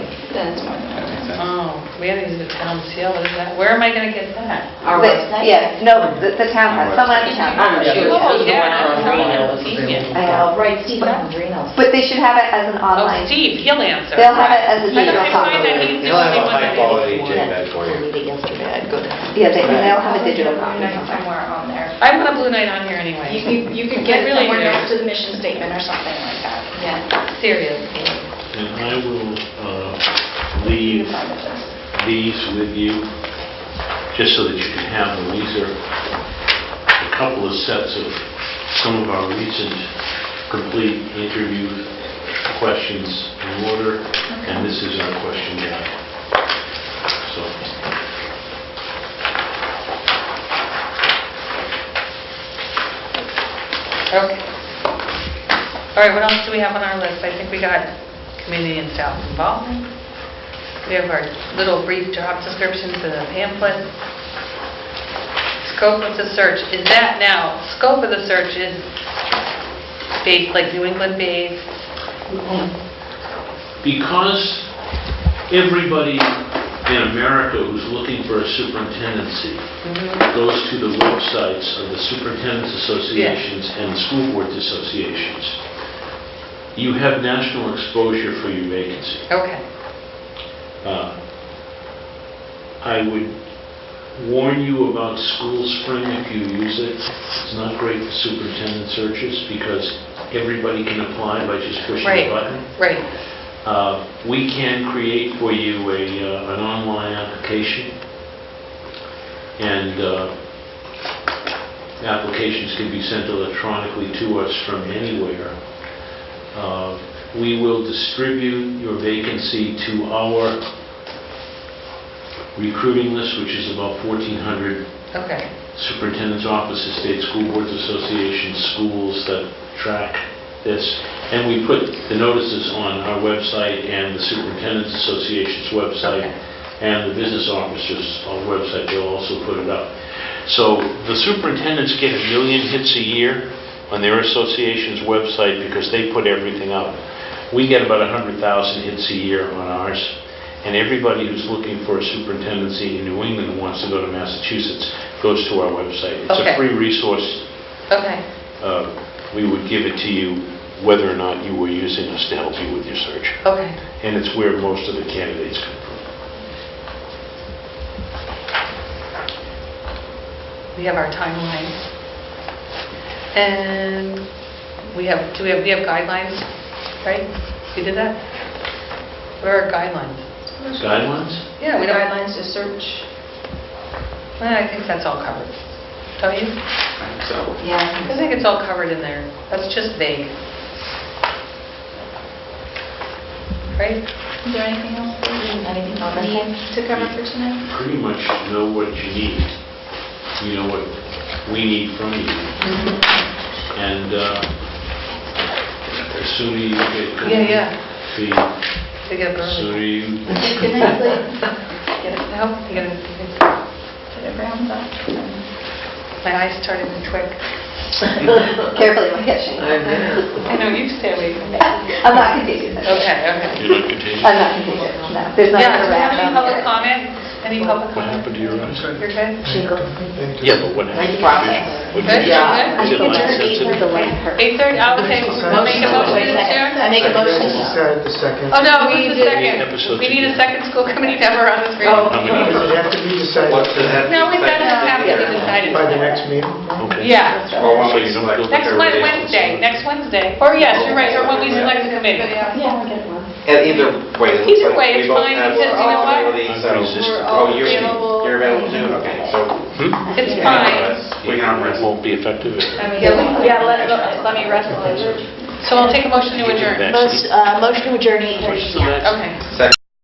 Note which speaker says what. Speaker 1: That's fine.
Speaker 2: That makes sense.
Speaker 3: Oh, we have to use the town seal, is that, where am I gonna get that?
Speaker 4: Our
Speaker 1: Wait,
Speaker 4: website?
Speaker 1: Yeah, no, the the town has, someone at the town.
Speaker 4: I'm not sure.
Speaker 3: Oh, yeah,
Speaker 4: Yeah.
Speaker 3: Marina, convenient.
Speaker 4: I know, right, Steve Andrino.
Speaker 1: But they should have it as an
Speaker 3: Oh,
Speaker 1: online.
Speaker 3: Steve, he'll answer.
Speaker 1: They'll have it as a
Speaker 3: But if
Speaker 1: digital
Speaker 3: I
Speaker 1: copy.
Speaker 3: find that he's the
Speaker 2: You'll have
Speaker 3: only
Speaker 2: a
Speaker 3: one that-
Speaker 2: high-quality JPEG for you.
Speaker 4: Yesterday, I'd go to.
Speaker 1: Yeah, they, they'll have a digital copy.
Speaker 5: Night Somewhere on there.
Speaker 3: I want a blue night on here
Speaker 5: You
Speaker 3: anyway,
Speaker 5: could- You could
Speaker 3: I
Speaker 5: get it
Speaker 3: really
Speaker 5: somewhere
Speaker 3: do.
Speaker 5: next to the mission statement or something like that.
Speaker 4: Yeah.
Speaker 3: seriously.
Speaker 6: And I will uh,
Speaker 5: You
Speaker 6: leave
Speaker 5: can find it there.
Speaker 6: these with you, just so that you can have them. These are a couple of sets of some of our recent complete interview questions in order, and this is our question guide. So,
Speaker 3: Okay. All right, what else do we have on our list? I think we got community and staff involvement. We have our little brief job descriptions and a pamphlet. Scope of the search, is that now, scope of the search is based, like New England based?
Speaker 6: because everybody in America who's looking for a superintendency
Speaker 3: Mm-hmm.
Speaker 6: goes to the websites of the superintendent's associations and school boards associations, you have national exposure for your vacancy.
Speaker 3: Okay,
Speaker 6: Uh, I would warn you about School Spring if you use it. It's not great for superintendent searches because everybody can apply by just pushing
Speaker 3: Right.
Speaker 6: a button.
Speaker 3: right.
Speaker 6: Uh, We can create for you a, uh, an online application, and uh, applications can be sent electronically to us from anywhere. Uh, We will distribute your vacancy to our recruiting list, which is about 1,400
Speaker 3: Okay,
Speaker 6: superintendent's offices, state school boards associations, schools that track this. And we put the notices on our website and the superintendent's association's website
Speaker 3: Okay.
Speaker 6: and the business officers' uh, website, they'll also put it up. So the superintendents get a million hits a year on their association's website because they put everything up. We get about 100,000 hits a year on ours, and everybody who's looking for a superintendency in New England who wants to go to Massachusetts goes to our website. It's
Speaker 3: Okay.
Speaker 6: a free resource.
Speaker 3: okay,
Speaker 6: Uh, We would give it to you whether or not you were using us to help you with your search.
Speaker 3: okay.
Speaker 6: And it's where most of the candidates come from.
Speaker 3: We have our timeline. And we have, do we have, we have guidelines, right? We did that? Where are guidelines?
Speaker 6: Guidelines?
Speaker 3: Yeah, we don't,
Speaker 5: Guidelines to search.
Speaker 3: Well, I think that's all covered. Don't you?
Speaker 2: So,
Speaker 4: Yeah.
Speaker 3: I think it's all covered in there. That's just vague. Right?
Speaker 5: Is there anything else that
Speaker 4: Anything on
Speaker 5: we need to cover for tonight?
Speaker 6: pretty much know what you need. You know what we need from you.
Speaker 3: Mm-hmm.
Speaker 6: And uh, the sooner you get going,
Speaker 3: Yeah, yeah.
Speaker 6: the
Speaker 3: We get a
Speaker 6: sooner
Speaker 3: burn.
Speaker 6: you...
Speaker 5: Good night, Blake.
Speaker 3: Get it, help, you gotta- you gotta-
Speaker 5: Get it round up.
Speaker 3: my eyes started to twitch.
Speaker 1: Carefully, my catching.
Speaker 3: I know, you stay away from me.
Speaker 1: I'm not contagious.
Speaker 3: Okay, okay.
Speaker 6: You're not contagious?
Speaker 1: I'm not contagious, no. There's not
Speaker 3: Yeah,
Speaker 1: a
Speaker 3: do we have any
Speaker 1: rat down
Speaker 3: public
Speaker 1: here.
Speaker 3: comment? Any public
Speaker 6: What
Speaker 3: comment?
Speaker 6: happened to your eyes?
Speaker 3: You're good?
Speaker 6: Yeah, but what happened?
Speaker 4: Process.
Speaker 6: Would you
Speaker 3: Good,
Speaker 6: say-
Speaker 3: yeah.
Speaker 4: I
Speaker 6: Is it
Speaker 4: think
Speaker 6: light
Speaker 4: it's
Speaker 6: sensitive?
Speaker 4: delaying her.
Speaker 3: 8:30, I'll take, we'll make a motion to adjourn.
Speaker 4: I make a motion.
Speaker 7: Said the second.
Speaker 3: Oh, no, we need a second.
Speaker 6: Episode
Speaker 3: We need a
Speaker 6: two.
Speaker 3: second school committee member on the
Speaker 4: Oh.
Speaker 3: screen.
Speaker 6: How
Speaker 7: Does it
Speaker 6: many?
Speaker 7: have to be decided
Speaker 2: What's the head?
Speaker 3: No, we've got to have to be decided.
Speaker 7: by the next meeting?
Speaker 6: Okay.
Speaker 3: Yeah.
Speaker 2: Or when
Speaker 6: So
Speaker 2: we
Speaker 6: you don't go-
Speaker 2: select
Speaker 3: Next
Speaker 2: everybody
Speaker 3: Wed-
Speaker 2: else.
Speaker 3: Wednesday, next Wednesday. Or yes, you're right, or when we select the committee.
Speaker 5: Yeah.
Speaker 2: And Either way. it looks
Speaker 3: Either
Speaker 2: like
Speaker 3: way,
Speaker 2: we
Speaker 3: it's
Speaker 2: both
Speaker 3: fine,
Speaker 2: have
Speaker 3: because you know what?
Speaker 2: availability,
Speaker 6: I'm
Speaker 2: so-
Speaker 6: pretty sus-
Speaker 5: We're all
Speaker 2: Oh, you're,
Speaker 5: available.
Speaker 2: you're available too? Okay, so.
Speaker 6: Hmm?
Speaker 3: It's fine.
Speaker 2: We can arm wrestle.
Speaker 6: Won't be effective.
Speaker 5: I mean,
Speaker 4: Yeah, we-
Speaker 5: yeah, let, let me wrestle it.
Speaker 3: So I'll take a motion to adjourn.
Speaker 4: Most, uh, motion to adjourn eight thirty.
Speaker 6: Push the next.
Speaker 3: Okay.
Speaker 2: Second.